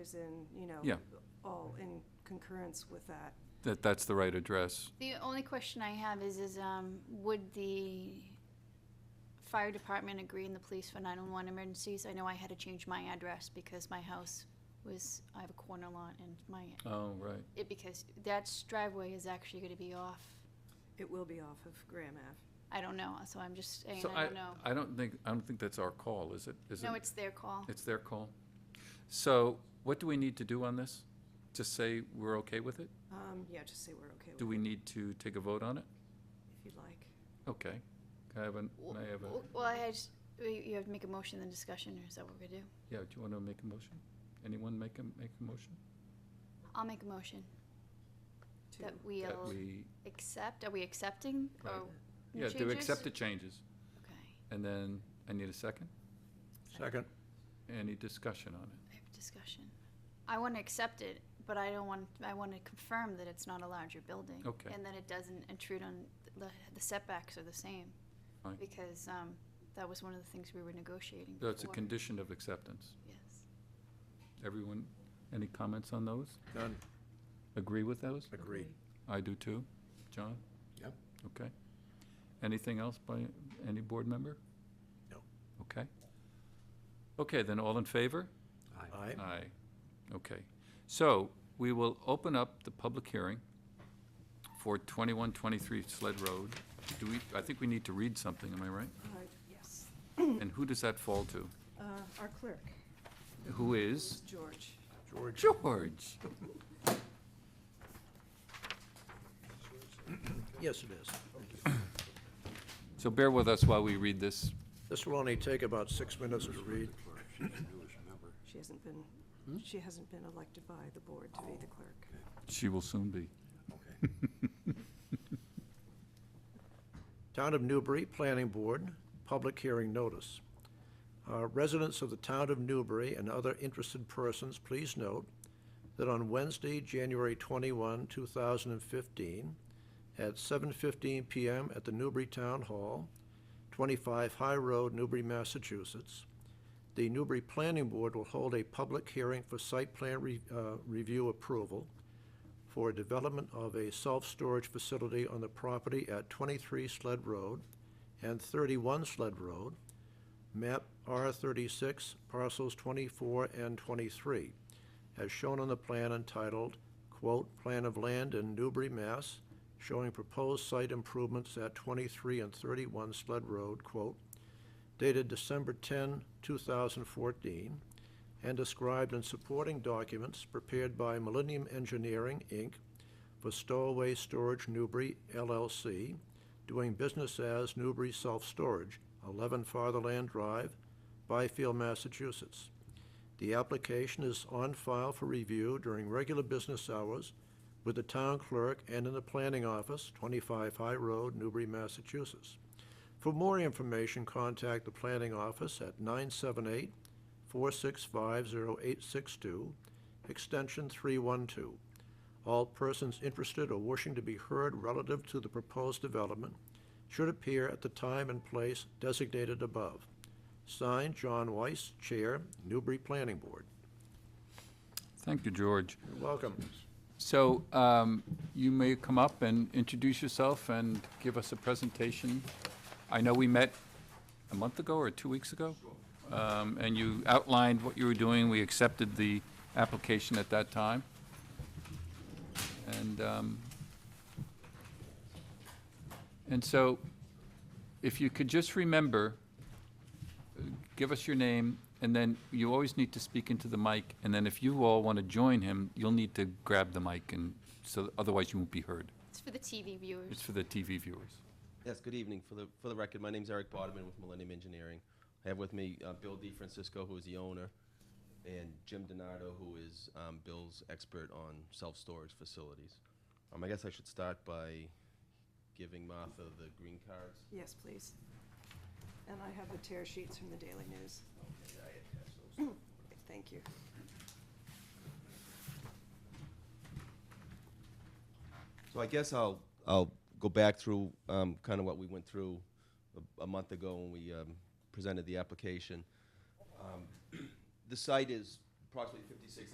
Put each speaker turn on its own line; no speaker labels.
is in, you know.
Yeah.
All in concurrence with that.
that that's the right address.
The only question I have is, is, um, would the fire department agree and the police for nine-one-one emergencies? I know I had to change my address because my house was, I have a corner lot and my,
Oh, right.
it, because that driveway is actually gonna be off.
It will be off of Graham Ave.
I don't know, so I'm just saying,
So
I don't know.
I don't think, I don't think that's our call, is it? Is
No,
it-
it's their call.
It's their call. So what do we need to do on this? Just say we're okay with it?
Um, yeah, just say we're okay
Do
with it,
we need to take a vote on it?
if you'd like.
Okay. Can I have a,
W-
may I have a,
w- Well, I had, you you have to make a motion, then discussion, or is that what we're gonna do?
yeah, do you want to make a motion? Anyone make a, make a motion?
I'll make a motion
to-
that we'll
That we,
accept, are we accepting,
Right.
or?
yeah, to
changes?
accept the changes.
Okay,
And then I need a second.
Second.
Any discussion on it?
I have discussion. I want to accept it, but I don't want, I want to confirm that it's not a larger building.
Oh, Okay.
And that it doesn't intrude on, the the setbacks are the same.
Fine.
Because um, that was one of the things we were negotiating before.
That's a condition of acceptance.
Yes.
Everyone, any comments on those?
None.
Agree with those?
Agreed.
I do too. John?
Yep.
Okay. Anything else by any board member?
No.
Okay. Okay, then all in favor?
Aye.
Aye. Okay. So we will open up the public hearing for 2123 Sled Road. Do we, I think we need to read something, am I right?
Uh, Yes,
And who does that fall to?
uh, our clerk
Who
is
is?
George.
George.
George.
Yes, it is.
So bear with us while we read this.
This will only take about six minutes to read.
She hasn't been, she hasn't been elected by the board to be the clerk.
She will soon be.
Town of Newbury Planning Board, public hearing notice. Uh, Residents of the town of Newbury and other interested persons, please note that on Wednesday, January 21, 2015, at 7:15 PM at the Newbury Town Hall, 25 High Road, Newbury, Massachusetts, the Newbury Planning Board will hold a public hearing for site plan re- uh, review approval for development of a self-storage facility on the property at 23 Sled Road and 31 Sled Road, map R36, parcels 24 and 23, as shown on the plan entitled, quote, "Plan of Land in Newbury, Mass., showing proposed site improvements at 23 and 31 Sled Road," quote, dated December 10, 2014, and described in supporting documents prepared by Millennium Engineering, Inc., for Stowaway Storage Newbury LLC, doing business as Newbury Self Storage, 11 Fatherland Drive, Byfield, Massachusetts. The application is on file for review during regular business hours with the town clerk and in the planning office, 25 High Road, Newbury, Massachusetts. For more information, contact the planning office at 978-465-0862, extension 312. All persons interested or wishing to be heard relative to the proposed development should appear at the time and place designated above. Signed, John Weiss, Chair, Newbury Planning Board.
Thank you, George.
You're Welcome.
So um, you may come up and introduce yourself and give us a presentation. I know we met a month ago or two weeks ago, um, and you outlined what you were doing. We accepted the application at that time. And, um, and so if you could just remember, uh, give us your name, and then you always need to speak into the mic, and then if you all want to join him, you'll need to grab the mic, and so otherwise you won't be heard.
It's for the TV viewers.
It's for the TV viewers.
Yes, good evening. For the, for the record, my name's Eric Bodeman with Millennium Engineering. I have with me uh, Bill DeFrancisco, who is the owner, and Jim Donato, who is um, Bill's expert on self-storage facilities. Um, I guess I should start by giving Martha the green cards.
Yes, please. And I have the tear sheets from the Daily News.
Okay, I attach those.
Thank you.
So I guess I'll, I'll go back through um, kind of what we went through a, a month ago when we um, presented the application. Um, The site is approximately 56